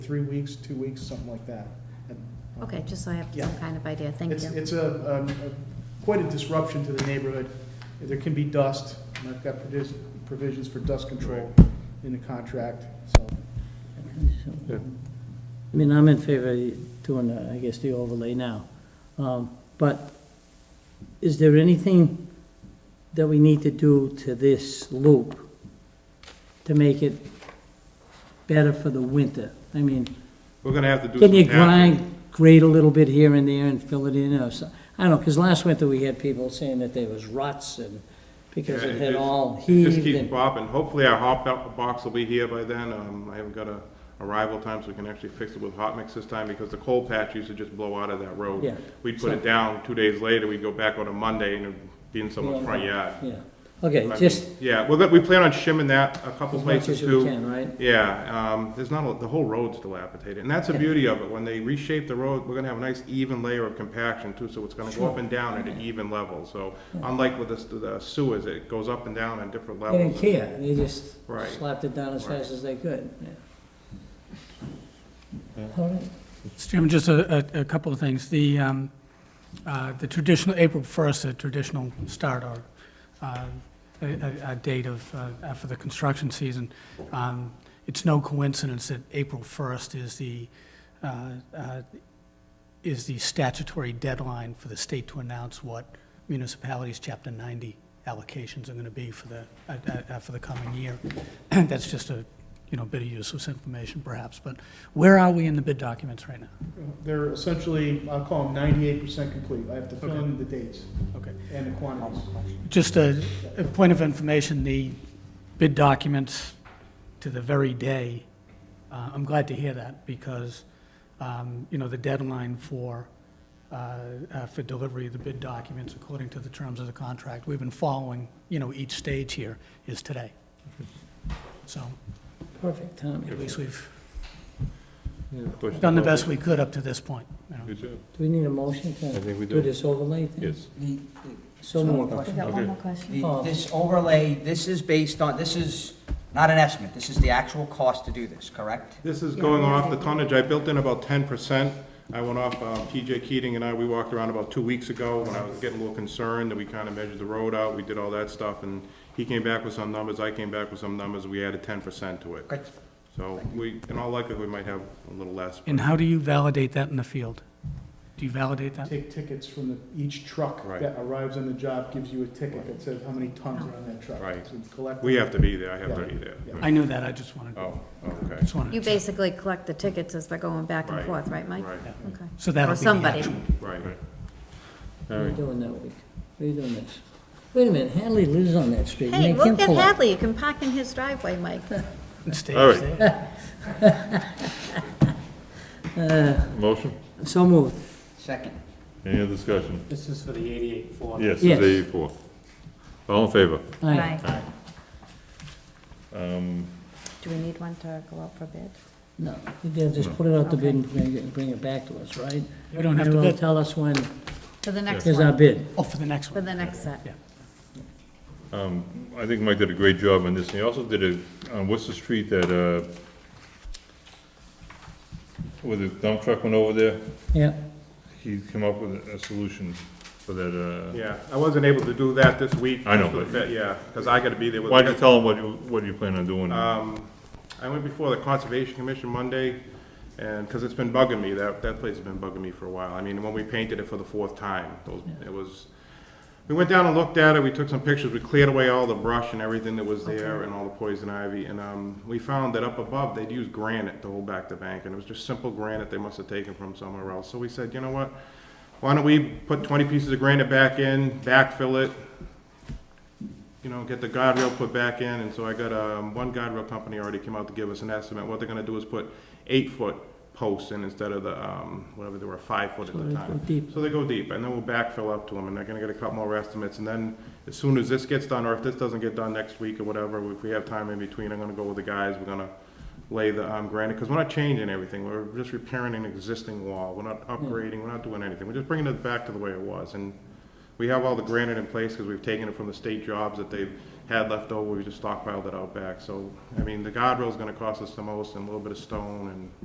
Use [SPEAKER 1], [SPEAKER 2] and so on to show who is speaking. [SPEAKER 1] three weeks, two weeks, something like that. And, um,
[SPEAKER 2] Okay, just so I have some
[SPEAKER 1] Yeah.
[SPEAKER 2] kind of idea, thank
[SPEAKER 1] It's,
[SPEAKER 2] you.
[SPEAKER 1] it's a, um, a- quite a disruption to the neighborhood. There can be dust, and I've got provis- provisions for dust control in the contract, so.
[SPEAKER 3] I mean, I'm in favor of doing, the- I guess, the overlay now. Um, But is there anything that we need to do to this loop to make it better for the winter? I mean,
[SPEAKER 4] We're gonna have to do some.
[SPEAKER 3] can you
[SPEAKER 4] tapping.
[SPEAKER 3] grind, grade a little bit here and there and fill it in or so? I don't know, because last winter we had people saying that there was ruts and because
[SPEAKER 4] Yeah,
[SPEAKER 3] it
[SPEAKER 4] it
[SPEAKER 3] had
[SPEAKER 4] just-
[SPEAKER 3] all
[SPEAKER 4] It just
[SPEAKER 3] heaved
[SPEAKER 4] keeps
[SPEAKER 3] and,
[SPEAKER 4] popping. Hopefully our hot bo- box will be here by then. Um, I haven't got a arrival time, so we can actually fix it with hot mix this time, because the cold patch used to just blow out of that road.
[SPEAKER 3] Yeah.
[SPEAKER 4] We'd put it down, two days later, we'd go back on a Monday, and it'd be in someone's front yard.
[SPEAKER 3] yeah. Okay,
[SPEAKER 4] I mean,
[SPEAKER 3] just
[SPEAKER 4] Yeah, well, we plan on shimming that a couple
[SPEAKER 3] as much
[SPEAKER 4] places
[SPEAKER 3] as
[SPEAKER 4] too.
[SPEAKER 3] we can, right?
[SPEAKER 4] Yeah, um, there's not, a- the whole road's dilapidated, and that's the
[SPEAKER 3] Yeah.
[SPEAKER 4] beauty of it, when they reshape the road, we're gonna have a nice even layer of compaction too, so it's gonna go
[SPEAKER 3] Sure.
[SPEAKER 4] up and down at an even level, so
[SPEAKER 3] Yeah.
[SPEAKER 4] unlike with the- the sewers, it goes up and down at different
[SPEAKER 3] They
[SPEAKER 4] levels.
[SPEAKER 3] didn't care, they just
[SPEAKER 4] Right.
[SPEAKER 3] slapped it down as
[SPEAKER 4] Right.
[SPEAKER 3] fast as they could, yeah. All right.
[SPEAKER 5] Mr. Chairman, just a, a a couple of things. The, um, uh, the traditional, April 1st, the traditional start or uh, a a- a date of, uh, for the construction season. Um, It's no coincidence that April 1st is the, uh, uh, is the statutory deadline for the state to announce what municipalities' Chapter 90 allocations are going to be for the, uh, uh, uh, for the coming year. That's just a, you know, bit of useless information perhaps, but where are we in the bid documents right now?
[SPEAKER 1] They're essentially, I'll call them ninety-eight percent complete. I have to fill in the dates
[SPEAKER 5] Okay.
[SPEAKER 1] and the quantities.
[SPEAKER 5] Just a, a point of information, the bid documents to the very day, uh, I'm glad to hear that because, um, you know, the deadline for, uh, uh, for delivery of the bid documents according to the terms of the contract, we've been following, you know, each stage here is today. So
[SPEAKER 3] Perfect timing.
[SPEAKER 5] at least we've
[SPEAKER 6] Push
[SPEAKER 5] done the best we could up to this point, you know.
[SPEAKER 6] Good job.
[SPEAKER 3] Do we need a motion
[SPEAKER 6] I
[SPEAKER 3] to
[SPEAKER 6] think we
[SPEAKER 3] do
[SPEAKER 6] do.
[SPEAKER 3] this overlay thing?
[SPEAKER 6] Yes.
[SPEAKER 7] The,
[SPEAKER 3] So
[SPEAKER 7] One more
[SPEAKER 3] moved.
[SPEAKER 2] We got
[SPEAKER 6] Okay.
[SPEAKER 2] one more question.
[SPEAKER 7] the,
[SPEAKER 3] Oh.
[SPEAKER 7] this overlay, this is based on, this is not an estimate, this is the actual cost to do this, correct?
[SPEAKER 4] This is
[SPEAKER 2] Yeah,
[SPEAKER 4] going
[SPEAKER 2] yeah,
[SPEAKER 4] off the
[SPEAKER 2] I-
[SPEAKER 4] tonnage, I built in about ten percent, I went off, um, TJ Keating and I, we walked around about two weeks ago, when I was getting a little concerned, that we kinda measured the road out, we did all that stuff, and he came back with some numbers, I came back with some numbers, we added ten percent to it.
[SPEAKER 7] Good.
[SPEAKER 4] So, we, in all likelihood, we might have a little less. but-
[SPEAKER 5] And how do you validate that in the field? Do you validate that?
[SPEAKER 1] Take tickets from the, each truck
[SPEAKER 4] Right.
[SPEAKER 1] that arrives on the job gives you a ticket that says how many tons
[SPEAKER 2] Oh.
[SPEAKER 1] are on that truck.
[SPEAKER 4] Right.
[SPEAKER 1] So collect-
[SPEAKER 4] We have to be there, I have to
[SPEAKER 1] Yeah.
[SPEAKER 4] be there.
[SPEAKER 1] Yeah.
[SPEAKER 5] I knew that, I just wanted,
[SPEAKER 4] Oh, okay,
[SPEAKER 5] just wanted.
[SPEAKER 2] You
[SPEAKER 5] to check.
[SPEAKER 2] basically collect the tickets as they're going back and
[SPEAKER 4] Right.
[SPEAKER 2] forth, right, Mike?
[SPEAKER 4] right,
[SPEAKER 2] Okay.
[SPEAKER 5] So that'll
[SPEAKER 2] Or
[SPEAKER 5] be the
[SPEAKER 2] somebody.
[SPEAKER 5] action.
[SPEAKER 4] right.
[SPEAKER 3] What are you doing that week? What are you doing next? Wait a minute, Hadley lives on that street.
[SPEAKER 2] Hey,
[SPEAKER 3] You can't
[SPEAKER 2] look at
[SPEAKER 3] pull up.
[SPEAKER 2] Hadley, you can park in his driveway, Mike.
[SPEAKER 5] Stage eh?
[SPEAKER 6] All right.
[SPEAKER 5] there.
[SPEAKER 6] Motion?
[SPEAKER 3] So moved.
[SPEAKER 7] Second.
[SPEAKER 6] Any other discussion?
[SPEAKER 8] This is for the eighty-eight four.
[SPEAKER 6] Yes,
[SPEAKER 3] Yes.
[SPEAKER 6] it's eighty-four. All in favor?
[SPEAKER 3] Aye.
[SPEAKER 2] Do we need one to go out for bid?
[SPEAKER 3] No, they'll just put it out the bid and bring it, bring it back to us, right?
[SPEAKER 5] We don't have
[SPEAKER 3] And
[SPEAKER 5] to
[SPEAKER 3] they'll
[SPEAKER 5] bid.
[SPEAKER 3] tell us when
[SPEAKER 2] For the next
[SPEAKER 3] is our
[SPEAKER 2] one,
[SPEAKER 3] bid.
[SPEAKER 5] Oh, for the next
[SPEAKER 2] for
[SPEAKER 5] one.
[SPEAKER 2] the next set.
[SPEAKER 6] I think Mike did a great job on this, and he also did it on Worcester Street that, uh, where the dump truck went over there,
[SPEAKER 3] Yeah,
[SPEAKER 6] he came up with a solution for that, uh,
[SPEAKER 4] Yeah, I wasn't able to do that this week.
[SPEAKER 6] I know,
[SPEAKER 4] but. Yeah, because I gotta be there
[SPEAKER 6] uh,
[SPEAKER 4] with.
[SPEAKER 6] why'd you tell him what you, what you plan on doing?
[SPEAKER 4] Um, I went before the Conservation Commission Monday, and, because it's been bugging me, that, that place has been bugging me for a while. I mean, when we painted it for the fourth time, those, it was, we went down and looked at it, we took some pictures, we cleared away all the brush and everything that was there and all the poison ivy, and, um, we found that up above, they'd used granite to hold back the bank, and it was just simple granite they must have taken from somewhere else. So we said, you know what, why don't we put twenty pieces of granite back in, backfill it, you know, get the guardrail put back in, and so I got, um, one guardrail company already came out to give us an estimate, what they're gonna do is put eight-foot posts in instead of the, um, whatever, they were five-foot at
[SPEAKER 3] So
[SPEAKER 4] the
[SPEAKER 3] they
[SPEAKER 4] time.
[SPEAKER 3] go deep.
[SPEAKER 4] So they go deep, and then we'll backfill up to them, and they're gonna get a couple more estimates, and then as soon as this gets done, or if this doesn't get done next week or whatever, if we have time in between, I'm gonna go with the guys, we're gonna lay the, um, granite, because we're not changing everything, we're just repairing an existing wall, we're not upgrading, we're not doing anything, we're just bringing it back to the way it was, and we have all the granite in place because we've taken it from the state jobs that they've had left over, we just stockpiled it out back. So, I mean, the guardrail's gonna cost us the most and a little bit of stone and